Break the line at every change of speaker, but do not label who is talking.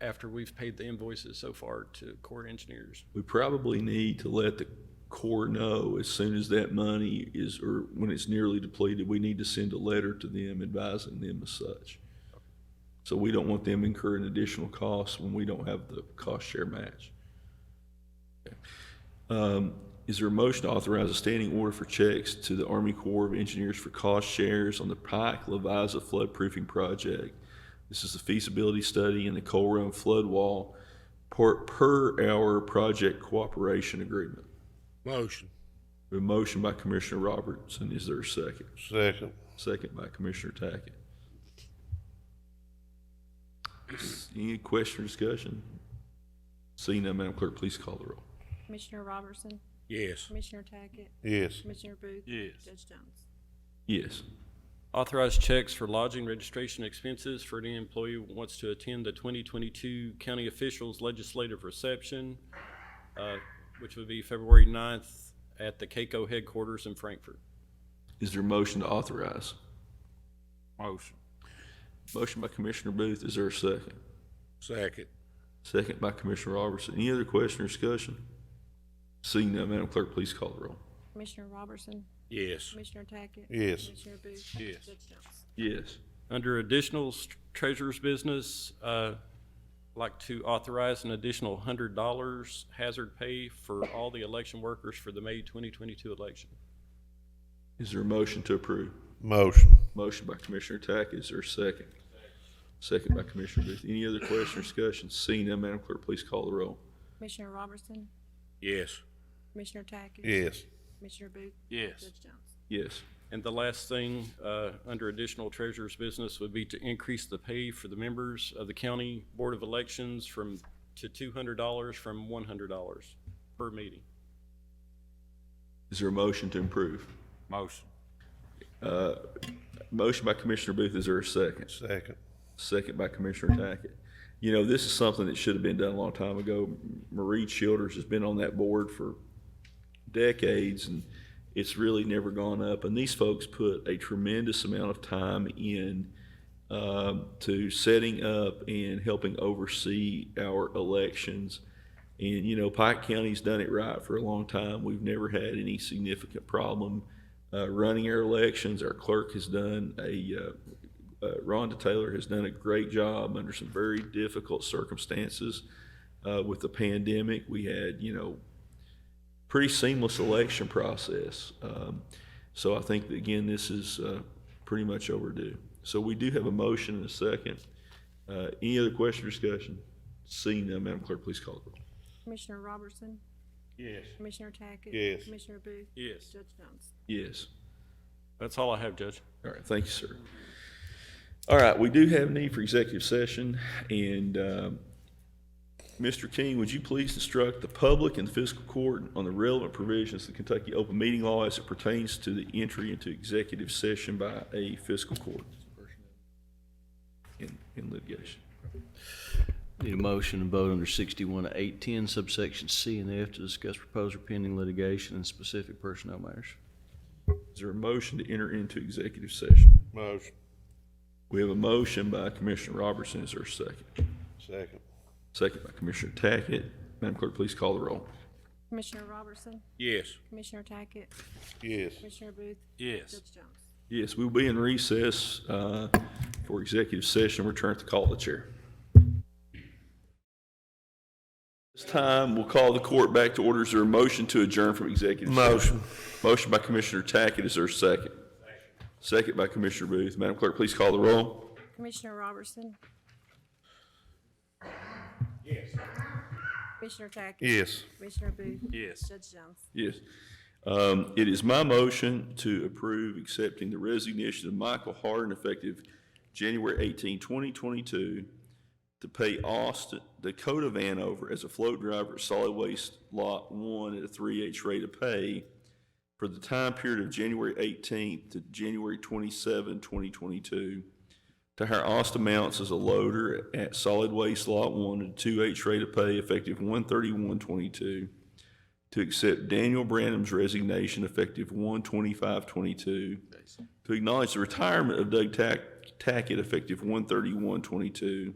after we've paid the invoices so far to Corps Engineers.
We probably need to let the Corps know as soon as that money is, or when it's nearly depleted, we need to send a letter to them advising them as such. So we don't want them incurring additional costs when we don't have the cost share match. Um, Is there a motion to authorize a standing order for checks to the Army Corps of Engineers for cost shares on the Pike Leviza floodproofing project? This is the feasibility study and the Coal Run flood wall per, per hour project cooperation agreement.
Motion.
A motion by Commissioner Robertson, is there a second?
Second.
Second by Commissioner Tackett. Any question or discussion? Seeing none, Madam Clerk, please call the roll.
Commissioner Robertson,
Yes.
Commissioner Tackett,
Yes.
Commissioner Booth.
Yes.
Judge Jones.
Yes.
Authorized checks for lodging registration expenses for any employee who wants to attend the 2022 county officials legislative reception, uh, which would be February 9th at the CAECO headquarters in Frankfurt.
Is there a motion to authorize?
Motion.
Motion by Commissioner Booth, is there a second?
Second.
Second by Commissioner Robertson. Any other question or discussion? Seeing none, Madam Clerk, please call the roll.
Commissioner Robertson,
Yes.
Commissioner Tackett.
Yes.
Commissioner Booth.
Yes.
Judge Jones.
Yes.
Under additional s- treasurer's business, uh, like to authorize an additional hundred dollars hazard pay for all the election workers for the May twenty twenty-two election.
Is there a motion to approve?
Motion.
Motion by Commissioner Tackett, is there a second? Second by Commissioner Booth. Any other question or discussion? Seeing none, Madam Clerk, please call the roll.
Commissioner Robertson,
Yes.
Commissioner Tackett.
Yes.
Commissioner Booth.
Yes.
Judge Jones.
Yes.
And the last thing, uh, under additional treasurer's business would be to increase the pay for the members of the county board of elections from, to two hundred dollars from one hundred dollars per meeting.
Is there a motion to improve?
Motion.
Uh, Motion by Commissioner Booth, is there a second?
Second.
Second by Commissioner Tackett. You know, this is something that should have been done a long time ago. Marie Childers has been on that board for decades, and it's really never gone up. And these folks put a tremendous amount of time in um, to setting up and helping oversee our elections. And, you know, Pike County's done it right for a long time. We've never had any significant problem uh, running our elections. Our clerk has done a, uh, uh, Rhonda Taylor has done a great job under some very difficult circumstances uh, with the pandemic. We had, you know, pretty seamless election process. Um, so I think that, again, this is uh, pretty much overdue. So we do have a motion and a second. Uh, any other question or discussion? Seeing none, Madam Clerk, please call the roll.
Commissioner Robertson. Yes. Commissioner Tackett.
Yes.
Commissioner Booth.
Yes.
Judge Jones.
Yes.
That's all I have, Judge.
All right, thank you, sir. All right, we do have need for executive session, and um, Mr. King, would you please instruct the public and the fiscal court on the relevant provisions of the Kentucky Open Meeting Law as it pertains to the entry into executive session by a fiscal court in in litigation?
Need a motion and vote under sixty-one to eight ten subsection C and F to discuss proposed or pending litigation and specific personnel matters.
Is there a motion to enter into executive session?
Motion.
We have a motion by Commissioner Robertson. Is there a second?
Second.
Second by Commissioner Tackett. Madam Clerk, please call the roll.
Commissioner Robertson,
Yes.
Commissioner Tackett,
Yes.
Commissioner Booth.
Yes.
Judge Jones.
Yes, we'll be in recess uh, for executive session. We're trying to call the chair. This time, we'll call the court back to orders. Is there a motion to adjourn from executive? session?
Motion.
Motion by Commissioner Tackett. Is there a second? Second by Commissioner Booth. Madam Clerk, please call the roll.
Commissioner Robertson. Yes. Commissioner Tackett.
Yes.
Commissioner Booth.
Yes.
Judge Jones.
Yes. Um, It is my motion to approve accepting the resignation of Michael Harden effective January 18, 2022, to pay Austin Dakota Vanover as a float driver at solid waste Lot 1 at a 3H rate of pay for the time period of January 18th to January 27, 2022, to hire Austin Mounts as a loader at solid waste Lot 1 at a 2H rate of pay effective 1/31/22, to accept Daniel Branham's resignation effective 1/25/22, to acknowledge the retirement of Doug Tack- Tackett effective 1/31/22,